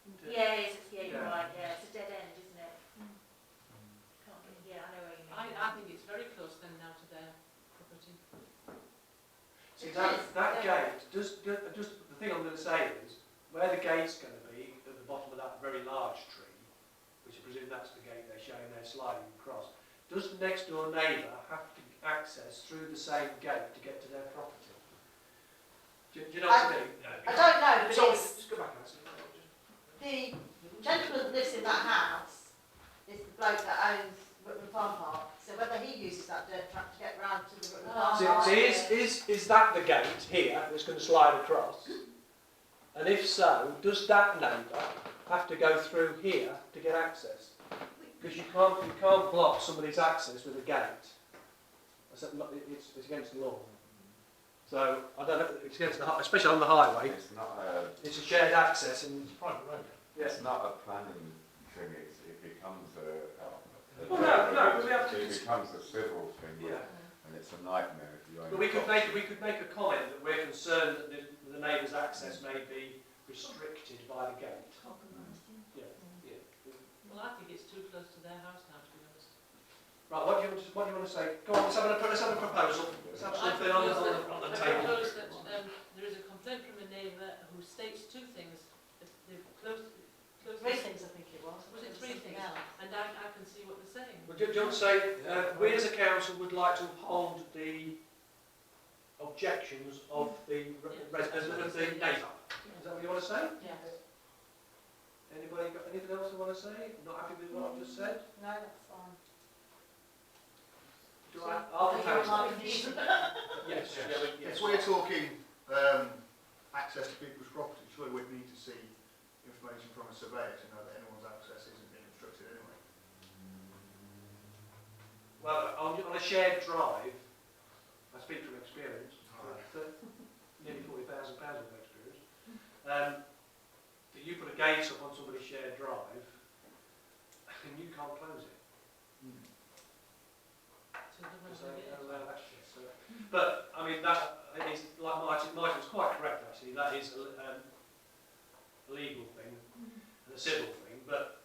Hmm. See, that, that gate, just, ju- just, the thing I'm going to say is, where the gate's going to be, at the bottom of that very large tree, which I presume that's the gate they're showing there sliding across, does next door neighbour have to access through the same gate to get to their property? Do, do you know what I mean? I don't know, but Sorry, it's, just go back and answer the question. the gentleman that lives in that house is the bloke that owns Rutland Farm Park. So whether he uses that dirt track to get round to the Rutland Farm So, Park. so is, is, is that the gate here that's going to slide across? And if so, does that neighbour have to go through here to get access? Because you can't, you can't block somebody's access with a gate. I said, no, it- It's, it's against the law. So, I don't know, it's against the, hi- especially on the highway, It's not a, it's a shared access and, private road. it's not a planning thing, it's, it becomes a. a- Well, no, no, but we have to- It becomes a civil thing, yeah. and it's a nightmare if you own. But we could property. make, we could make a comment that we're concerned that the, the neighbour's access may be restricted by the gate. Yeah. Well, I think it's too close to their house now, to be honest. Right, what do you, what do you want to say? Go on, let's have a, let's have a proposal. Let's have I something on the, propose on the, on the that- I table. propose that, um, there is a complaint from a neighbour who states two things. If They've closed, closed, Three things, I think it was. Was it three Something things? else. and I, I can see what they're saying. Would you, do you want to say, uh, we as a council would like to uphold the objections of the resident of the neighbour? Is that what you want to say? Yeah. Anybody got anything else they want to say? Not happy with what I've just said? No, that's fine. Do I, I'll Are you propose. on my condition? Yes, yeah, we- yes. Yes, we're talking um, access to people's property. Surely we'd need to see information from a surveyor to know that anyone's access isn't being obstructed anyway. Well, on, on a shared drive, I speak from experience, th- nearly forty thousand pounds of experience. Um, that you put a gate up on somebody's shared drive, and you can't close it Hmm. To the one because who they did. don't allow that uh, shit. So, but I mean that is like Martin. Martin's quite correct actually. That is a, um, a legal thing and a civil thing. But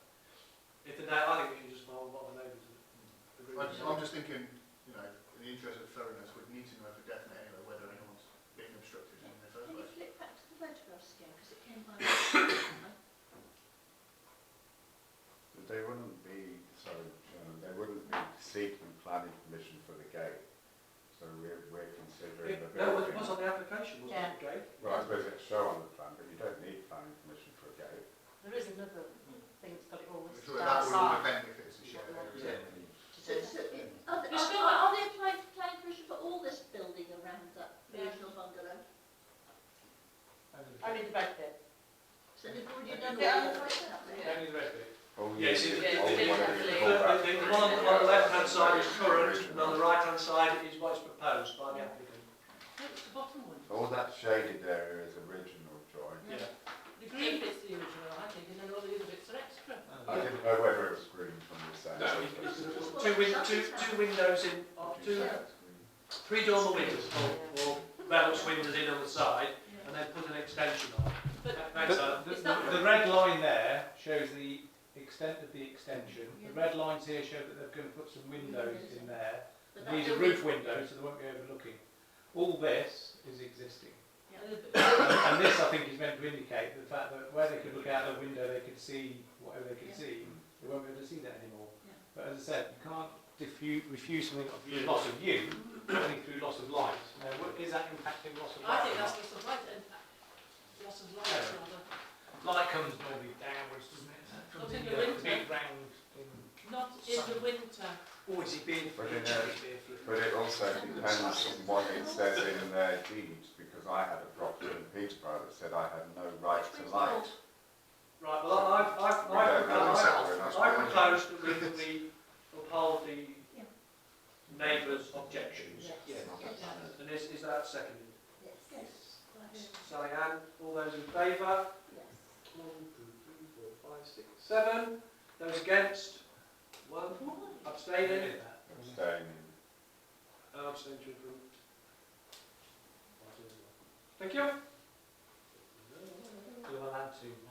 if the na- I think we should just follow what the neighbours agree. I'm just, with. I'm just thinking, you know, in the interest of thoroughness, we'd need to know for definite anyway whether anyone's being obstructed in the first Can you place. flip back to the photographs again, because it came by... Well, But They wouldn't be, sorry, Chairman, they wouldn't be seeking planning permission for the gate, so we're, we're considering the It- No, it building. was on the application, wasn't Yeah. it? Okay. Well, I suppose it's shown on the plan, but you don't need planning permission for a gate. There is another thing that's got it all I'm listed sure that would outside. depend if it's a shared area. So, so, it- are they, You still are, are they applying for planning permission for all this building around that Yeah. original bungalow? Only the red bit. So they've already Yeah. done the other way down there? Only the red bit. All you Yes, need- it- it- all you it- want The, is the, a callback. the one on the, on the left-hand side is current, and on the right-hand side is what is proposed by the applicant. No, it's the bottom one. All that shaded area is original, Joy. Yeah. The green bit's the original, I think, and then all the other bits are extra. I didn't know whether it was green from the side. No, it- it's Two, win- two, two windows in, uh, two, three dormer windows, or, or valance windows in on the side, and then put an extension on. But Thanks, Alan. The, the, the red line there shows the extent of the extension. The red lines here show that they're going to put some windows in there. But that These are building- roof windows, so they won't be overlooking. All this is existing. Yeah. And and this, I think, is meant to indicate the fact that where they could look out the window, they could see whatever they could Yeah. see. They won't be able to see that anymore. Yeah. But as I said, you can't diffuse, refuse something of your loss of view, only through loss of light. Now, what- is that impacting loss of light? I think that's lots of light, and lots of light, Yeah. rather. Light comes normally downwards, doesn't it? Not Comes in in the the winter. big uh, round Not in the winter. Or is it being, But is in it a- being flipped? But it also depends on what it says in their deeds, because I had a property in Peterborough that said I had no right to light. Right, well, I- I've, I've, Yeah, I've, that's I've, separate, that's I've fine. proposed that we, we uphold the Yeah. neighbours' objections. Yes. Yeah. Yes. And is, is that seconded? Yes. Sally Ann, all those in favour? Yes. One, two, three, four, five, six, seven. Those against? One. Abstaining? Staying And abstaining to approve. Thank you. You're allowed to